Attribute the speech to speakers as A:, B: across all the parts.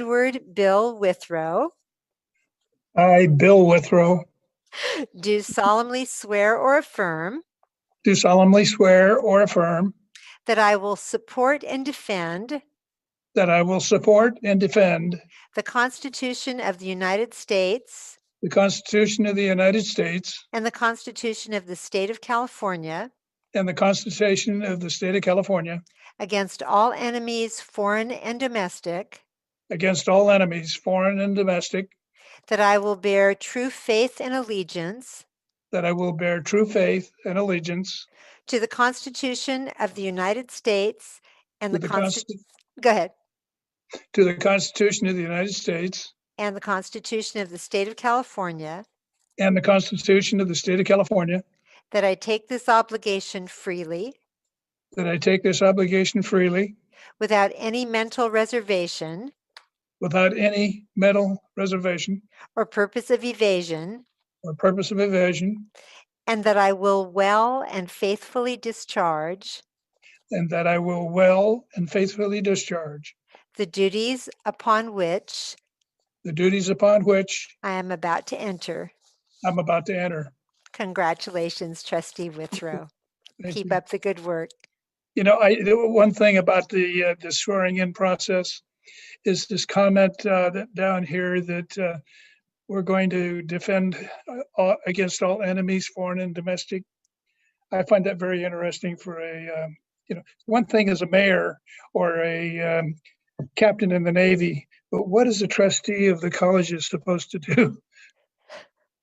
A: Edward Bill Withrow,
B: I, Bill Withrow,
A: do solemnly swear or affirm
B: do solemnly swear or affirm
A: that I will support and defend
B: that I will support and defend
A: the Constitution of the United States
B: the Constitution of the United States
A: and the Constitution of the State of California
B: and the Constitution of the State of California
A: against all enemies, foreign and domestic,
B: against all enemies, foreign and domestic,
A: that I will bear true faith and allegiance
B: that I will bear true faith and allegiance
A: to the Constitution of the United States and
B: to
A: the
B: the,
A: Constitution,
B: Consti-
A: go ahead,
B: to the Constitution of the United States
A: and the Constitution of the State of California,
B: and the Constitution of the State of California,
A: that I take this obligation freely
B: that I take this obligation freely
A: without any mental reservation
B: without any mental reservation
A: or purpose of evasion,
B: or purpose of evasion,
A: and that I will well and faithfully discharge
B: and that I will well and faithfully discharge
A: the duties upon which
B: the duties upon which
A: I am about to enter.
B: I'm about to enter.
A: Congratulations, Trustee Withrow.
B: Thank
A: Keep
B: you.
A: up the good work.
B: You know, I, the one thing about the, uh, the swearing in process is this comment, uh, that down here that, uh, we're going to defend, uh, all- against all enemies, foreign and domestic. I find that very interesting for a, um, you know, one thing is a mayor or a, um, captain in the Navy, but what is a trustee of the college is supposed to do?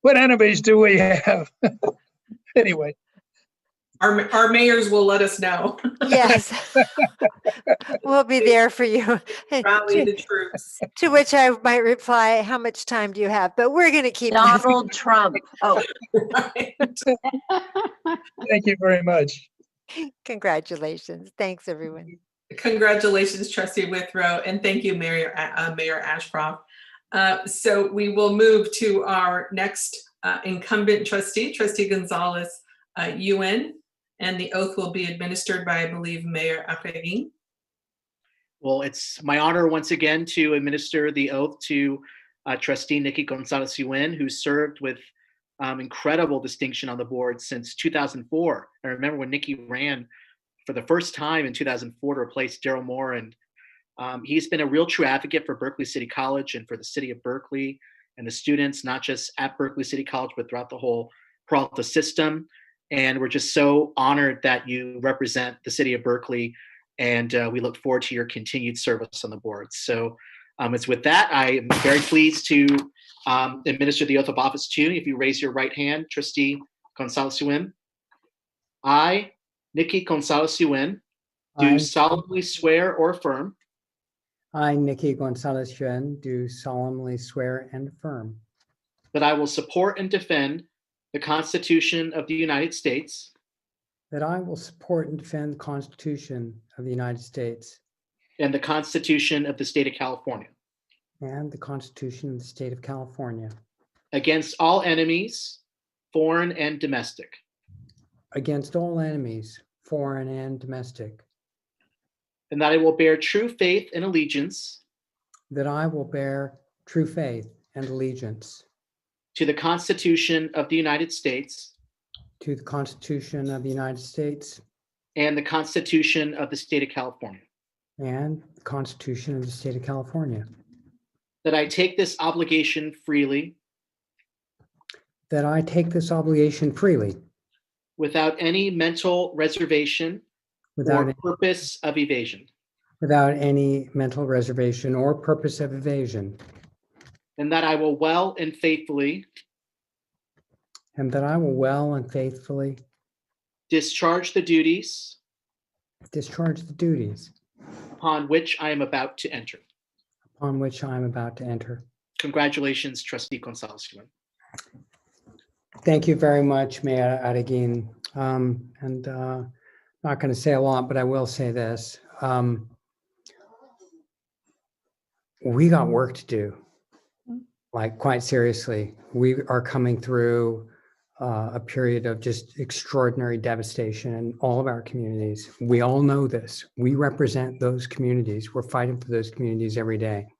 B: What enemies do we have? Anyway,
C: Our, our mayors will let us know.
A: Yes. We'll be there for you. And
C: Rally
A: To
C: the troops.
A: to which I might reply, how much time do you have? But we're going to keep. moving.
D: Donald Trump. Oh,
C: Right.
B: thank you very much.
A: Congratulations. Thanks, everyone.
C: Congratulations, trustee Withrow, and thank you, Mayor, uh, Mayor Ashcroft. Uh, So we will move to our next uh, incumbent trustee, trustee Gonzalez uh, UN, and the oath will be administered by, I believe, Mayor Aperin.
E: Well, it's my honor once again to administer the oath to uh, trustee Nikki Gonzalez Yuen, who served with um, incredible distinction on the board since 2004. I remember when Nikki ran for the first time in 2004 to replace Daryl Moore, and um, he's been a real true advocate for Berkeley City College and for the city of Berkeley and the students, not just at Berkeley City College, but throughout the whole Peralta system. And we're just so honored that you represent the city of Berkeley and uh, we look forward to your continued service on the board. So um, it's with that, I am very pleased to um, administer the oath of office to you. If you raise your right hand, trustee Gonzalez Yuen. I, Nikki Gonzalez Yuen,
F: I-
E: do solemnly swear or affirm
F: I, Nikki Gonzalez Yuan, do solemnly swear and affirm
E: that I will support and defend the Constitution of the United States
F: that I will support and defend the Constitution of the United States
E: and the Constitution of the State of California
F: and the Constitution of the State of California
E: against all enemies, foreign and domestic,
F: against all enemies, foreign and domestic,
E: and that I will bear true faith and allegiance
F: that I will bear true faith and allegiance
E: To the Constitution of the United States
F: to the Constitution of the United States
E: and the Constitution of the State of California.
F: and the Constitution of the State of California,
E: That I take this obligation freely
F: that I take this obligation freely
E: without any mental reservation
F: without,
E: or purpose of evasion.
F: without any mental reservation or purpose of evasion,
E: And that I will well and faithfully
F: And that I will well and faithfully
E: discharge the duties
F: discharge the duties
E: upon which I am about to enter.
F: upon which I am about to enter.
E: Congratulations, trustee Gonzalez.
F: Thank you very much, Mayor Adagin. Um, And uh, not going to say a lot, but I will say this. Um, We got work to do, like quite seriously. We are coming through uh, a period of just extraordinary devastation in all of our communities. We all know this. We represent those communities. We're fighting for those communities every day.